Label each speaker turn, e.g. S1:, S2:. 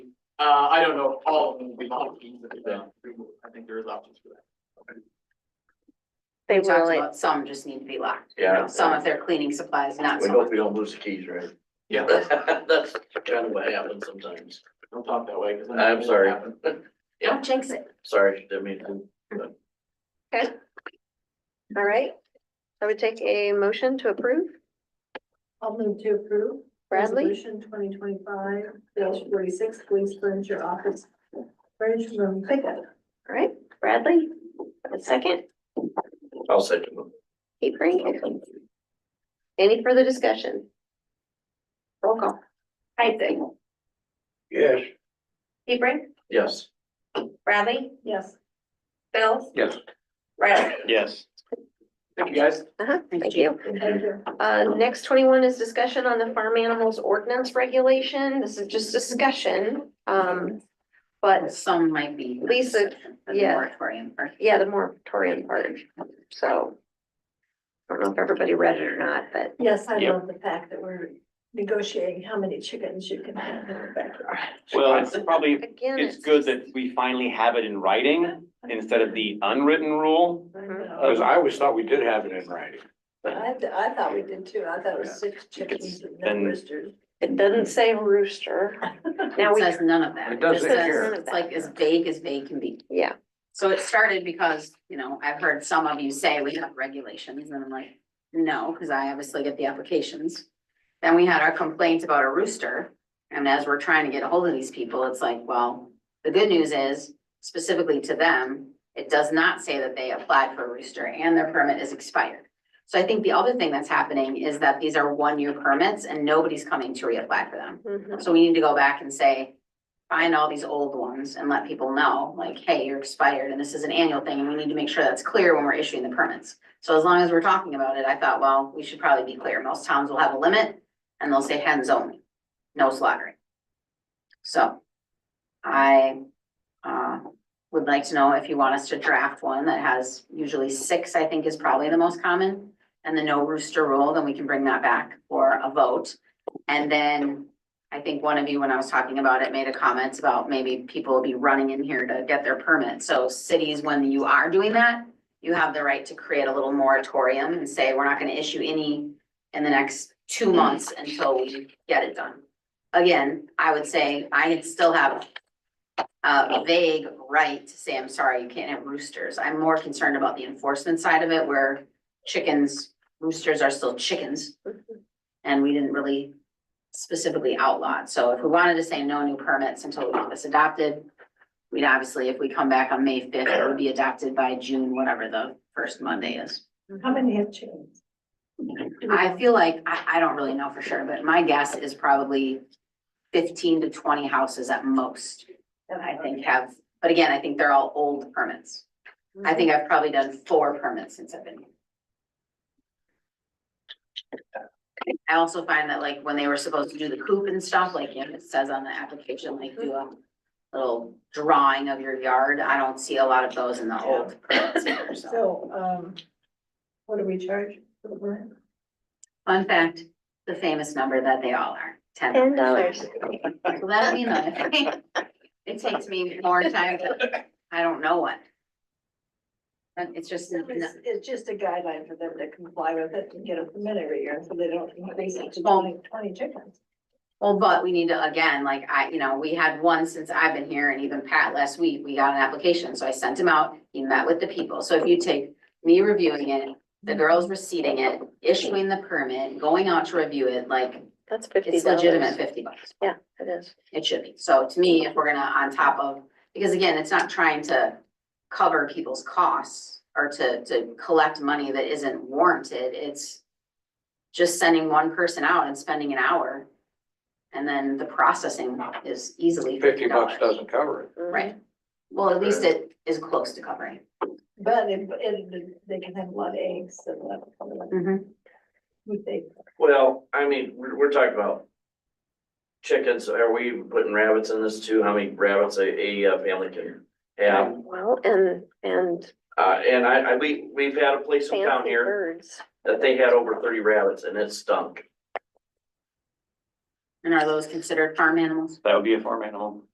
S1: Uh, I don't know if all of them will be options, if they're removed. I think there is options for that.
S2: They
S3: We talked
S2: will,
S3: about some just need to be locked.
S4: Yeah.
S3: Some if they're cleaning supplies, not
S4: We
S3: some.
S4: hope we don't lose the keys, right?
S1: Yeah,
S4: That's kind of what happens sometimes.
S1: don't talk that way, because.
S4: I'm sorry.
S3: Don't jinx it.
S4: Sorry, didn't mean to.
S2: all right. I would take a motion to approve.
S5: I'll move to approve.
S2: Bradley,
S5: Resolution twenty twenty-five forty-six, police furniture office furniture room pickup.
S2: all right, Bradley, a second,
S4: I'll say to
S2: Capering. Any further discussion? Roll call.
S6: Isaac,
S4: Yes.
S6: Hebring,
S4: Yes.
S6: Bradley,
S5: Yes.
S6: Bills.
S4: Yes.
S6: Riley.
S4: Yes.
S1: Thank you, guys.
S2: Uh-huh, thank you.
S5: Thank you.
S2: Uh, next twenty-one is discussion on the farm animals ordinance regulation. This is just discussion. Um, but
S3: Some might be.
S2: Lisa,
S3: For the
S2: yeah.
S3: Moratorium or.
S2: yeah, the moratorium part, so. I don't know if everybody read it or not, but
S5: Yes, I love the fact that we're negotiating how many chickens you can have in the backyard.
S7: Well, it's probably,
S2: again.
S7: it's good that we finally have it in writing instead of the unwritten rule.
S5: I
S3: Mm-hmm.
S5: know.
S7: Because I
S4: always thought we did have it in writing.
S5: I, I thought we did too. I thought it was six chickens and
S7: Then-
S5: no roosters.
S2: It doesn't say rooster. Now
S3: It
S2: we,
S3: says none of that.
S4: It doesn't
S3: just says
S2: here.
S3: It's like as vague as vague can be.
S2: yeah,
S3: So it started because, you know, I've heard some of you say we have regulations and I'm like, no, because I obviously get the applications. Then we had our complaints about a rooster. And as we're trying to get a hold of these people, it's like, well, the good news is specifically to them, it does not say that they applied for a rooster and their permit is expired. So I think the other thing that's happening is that these are one-year permits and nobody's coming to reapply for them.
S2: mhm,
S3: So we need to go back and say, find all these old ones and let people know, like, hey, you're expired and this is an annual thing and we need to make sure that's clear when we're issuing the permits. So as long as we're talking about it, I thought, well, we should probably be clear. Most towns will have a limit and they'll say hens only, no slaughtering. So I uh would like to know if you want us to draft one that has usually six, I think is probably the most common. And the no rooster rule, then we can bring that back for a vote. And then I think one of you, when I was talking about it, made a comment about maybe people will be running in here to get their permit. So cities, when you are doing that, you have the right to create a little moratorium and say, we're not gonna issue any in the next two months until we get it done. Again, I would say I still have a vague right to say, I'm sorry, you can't have roosters. I'm more concerned about the enforcement side of it where chickens, roosters are still chickens. And we didn't really specifically outlawed. So if we wanted to say no new permits until we get this adopted, we'd obviously, if we come back on May fifth, it would be adopted by June, whatever the first Monday is.
S5: How many have chickens?
S3: I feel like, I, I don't really know for sure, but my guess is probably fifteen to twenty houses at most, I think have, but again, I think they're all old permits. I think I've probably done four permits since I've been here. I also find that like when they were supposed to do the coop and stuff, like if it says on the application, like do a little drawing of your yard, I don't see a lot of those in the old permits either, so.
S5: So, um, what do we charge for the rent?
S3: Fun fact, the famous number that they all are, ten.
S2: ten dollars.
S3: Well, that'd be nice. It takes me more time, to- I don't know what. And it's just,
S5: It's, it's just a guideline for them to comply with it and get a permit every year, so they don't increase it to
S3: Well-
S5: twenty, twenty chickens.
S3: well, but we need to, again, like I, you know, we had one since I've been here and even Pat last week, we got an application, so I sent him out. He met with the people, so if you take me reviewing it, the girls receiving it, issuing the permit, going out to review it, like,
S2: That's fifty
S3: it's
S2: dollars.
S3: legitimate fifty bucks.
S2: It is.
S3: It should be. So to me, if we're gonna on top of, because again, it's not trying to cover people's costs or to, to collect money that isn't warranted. It's just sending one person out and spending an hour. And then the processing is easily fifty dollars.
S4: cover it.
S2: Mhm.
S3: Right. Well, at least it is close to covering.
S5: But it, it, they can have a lot of eggs and a lot of, we think.
S4: Well, I mean, we're, we're talking about chickens. Are we putting rabbits in this too? How many rabbits a, a uh, family can have?
S2: Mm-hmm. Well, and, and
S4: Uh, and I, I, we, we've had a place in town
S2: fancy
S4: here
S2: birds.
S4: that they had over thirty rabbits and it stunk.
S3: And are those considered farm animals?
S7: That would be a farm animal.